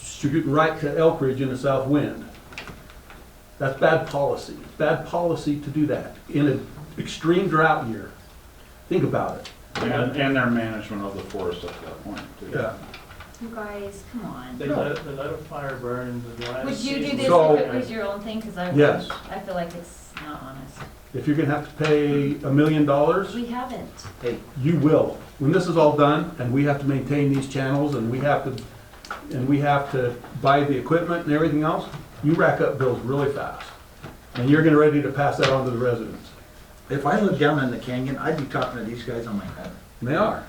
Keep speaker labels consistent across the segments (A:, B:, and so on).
A: distributing right to Elk Ridge in the south wind. That's bad policy. It's bad policy to do that in an extreme drought year. Think about it.
B: And, and their management of the forest at that point, too.
C: You guys, come on.
D: They let, they let a fire burn in the last.
C: Would you do
D: season.
C: this
A: So-
C: if it was your own thing? Because I,
A: Yes.
C: I feel like it's not honest.
A: If you're gonna have to pay a million dollars,
C: We haven't.
A: you will. When this is all done, and we have to maintain these channels, and we have to, and we have to buy the equipment and everything else, you rack up bills really fast. And you're getting ready to pass that on to the residents.
E: If I lived down in the canyon, I'd be talking to these guys on my head.
A: And they are.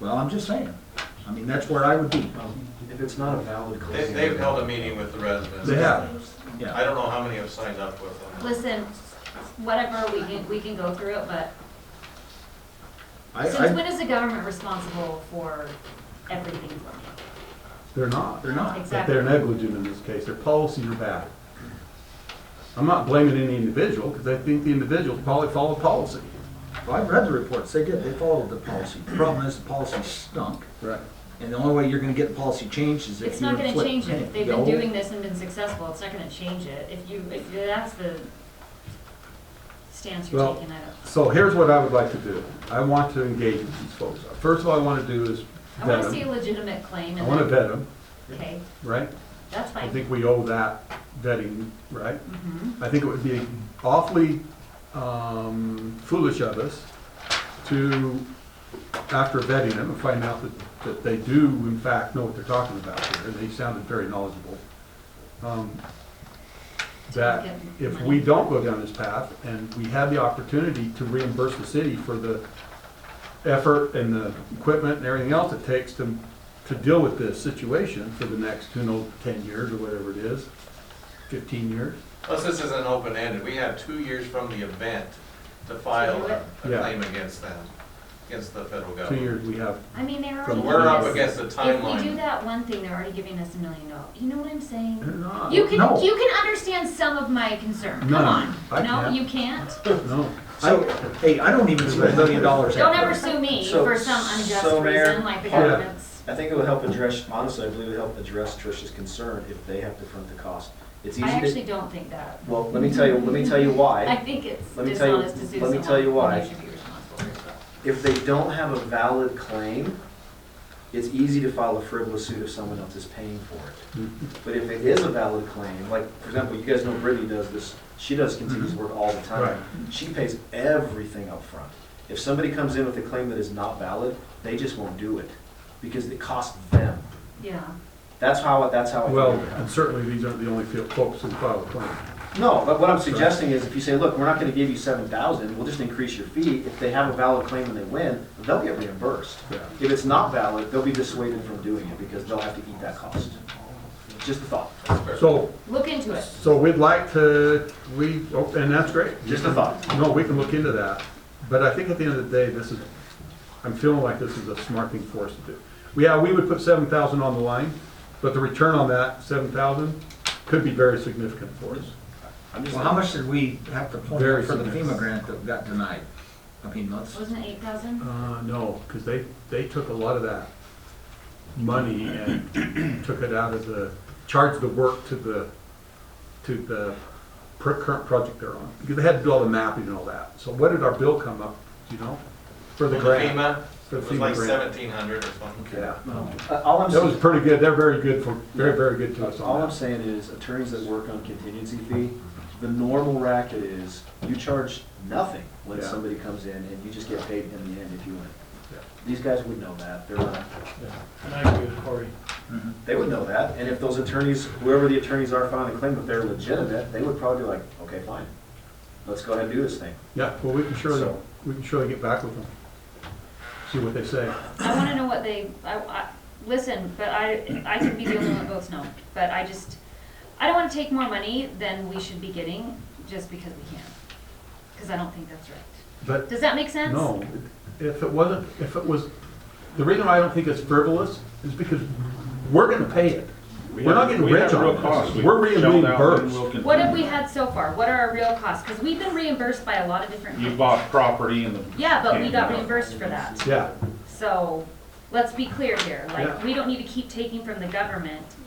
E: Well, I'm just saying. I mean, that's where I would be.
F: If it's not a valid
G: They-
F: closing.
G: They've held a meeting with the residents.
A: They have.
E: Yeah.
G: I don't know how many have signed up with them.
C: Listen, whatever, we can, we can go through it, but
E: I,
C: since
E: I,
C: when is the government responsible for everything for me?
A: They're not.
E: they're not.
A: But they're
C: Exactly.
A: negligent in this case, their policies are bad. I'm not blaming any individual, because I think the individuals probably follow policy.
E: Well, I've read the reports. They did. They followed the policy. The Problem is the policy stunk.
A: Right.
E: And the only way you're gonna get the policy changed is if you.
C: It's not gonna
E: inflict
C: change it.
E: pain.
C: If They've been
E: No.
C: doing this and been successful. It's not gonna change it. If you, if that's the stance you're
A: Well-
C: taking, I don't.
A: So here's what I would like to do. I want to engage with these folks. First of all, I want to do is
C: I
A: vet
C: wanna see
A: them.
C: a legitimate claim
A: I
C: and
A: want to
C: then,
A: vet them,
C: okay,
A: right?
C: that's
A: I
C: fine.
A: think we owe that vetting, right?
C: Mhm.
A: I think it would be awfully um, foolish of us to, after vetting them, and find out that, that they do in fact know what they're talking about here, they sounded very knowledgeable. um, That if we don't go down this path, and we have the opportunity to reimburse the city for the effort and the equipment and everything else it takes to, to deal with this situation for the next, who knows, ten years or whatever it is, fifteen years.
G: Plus, this isn't open-ended. We have two years from the event to file a
A: Yeah.
G: a claim against them, against the federal
A: Two
G: government.
A: years we have
C: I mean, they're
A: From
C: already.
G: We're up
C: giving us-
G: against the
C: If we do
G: timeline.
C: that one thing, they're already giving us a million dollars. You know what I'm saying?
A: Uh, No,
C: You can,
E: no.
C: you can understand some of my concern. Come
A: No,
C: on.
A: I
C: No,
A: can't.
C: you can't?
A: no.
E: I- Hey, I don't even spend a million dollars.
C: Don't
E: out
C: ever
E: there.
C: sue me
F: So-
C: for some unjust
F: so, Mayor,
C: reason like the
A: part of-
C: government's.
F: I think it would help address, honestly, I believe it would help address Trish's concern if they have to front the cost. It's
C: I
F: easy
C: actually
F: to,
C: don't think that.
F: well, let me tell you, let me tell you
C: I
F: why.
C: think it's
F: Let me tell you-
C: dishonest to sue
F: let
C: someone.
F: me tell you why.
C: when You should be responsible for yourself.
F: If they don't have a valid claim, it's easy to file a frivolous suit if someone else is paying for it.
A: Mm-hmm.
F: But if it is a valid claim, like, for example, you guys know Brittany does this, she does continuous work all the
A: Mm-hmm. Right.
F: time. She pays everything up front. If somebody comes in with a claim that is not valid, they just won't do it because it costs them.
C: Yeah.
F: That's how, that's how I feel
A: Well,
F: about it.
A: and certainly these aren't the only field folks who file a claim.
F: No, but what I'm suggesting is if you say, look, we're not gonna give you seven thousand, we'll just increase your fee, if they have a valid claim and they win, they'll get reimbursed.
A: Yeah.
F: If it's not valid, they'll be dissuaded from doing it because they'll have to eat that cost. Just a thought,
A: So,
C: Look into it.
A: so we'd like to, we, oh, and that's great.
F: just a thought.
A: No, we can look into that, but I think at the end of the day, this is, I'm feeling like this is a smart thing for us to do. Yeah, we would put seven thousand on the line, but the return on that seven thousand could be very significant for us.
F: I'm just,
E: Well, how much did we have to point
A: Very
E: for the
A: significant.
E: FEMA grant that got denied? I mean, let's,
C: Wasn't it eight thousand?
A: Uh, no, because they, they took a lot of that money and took it out of the, charged the work to the, to the per- current project they're on. Because they had to do all the mapping and all that. So what did our bill come up, do you know? For the
G: With
A: grant?
G: FEMA,
A: For
G: it
A: the
G: was
A: FEMA
G: like
A: grant.
G: seventeen hundred or something.
A: Yeah,
F: uh, all I'm
A: that was
F: saying,
A: pretty good. They're very good for, very, very good to us
F: all
A: on
F: I'm
A: that.
F: saying is attorneys that work on contingency fee, the normal racket is you charge nothing when
A: Yeah.
F: somebody comes in and you just get paid in the end if you win.
A: Yeah.
F: These guys would know that, they're not,
D: And I agree with Cory.
F: They would know that, and if those attorneys, whoever the attorneys are filing the claim, if they're legitimate, they would probably be like, okay, fine, let's go ahead and do this thing.
A: Yeah, well, we can surely,
F: So-
A: we can surely get back with them. See what they say.
C: I wanna know what they, I, I, listen, but I, I could be the only one that votes no, but I just, I don't wanna take more money than we should be getting just because we can. Cause I don't think that's right.
A: But
C: Does that make sense?
A: No, if it wasn't, if it was, the reason why I don't think it's frivolous is because we're gonna pay it. We're not getting rich on this. We're being reimbursed.
C: What have we had so far? What are our real costs? Cause we've been reimbursed by a lot of different
B: You
C: things.
B: bought property and the.
C: Yeah, but we
B: and-
C: got reimbursed for that.
A: Yeah.
C: So, let's be clear here,
A: Yeah.
C: like, we don't need to keep taking from the government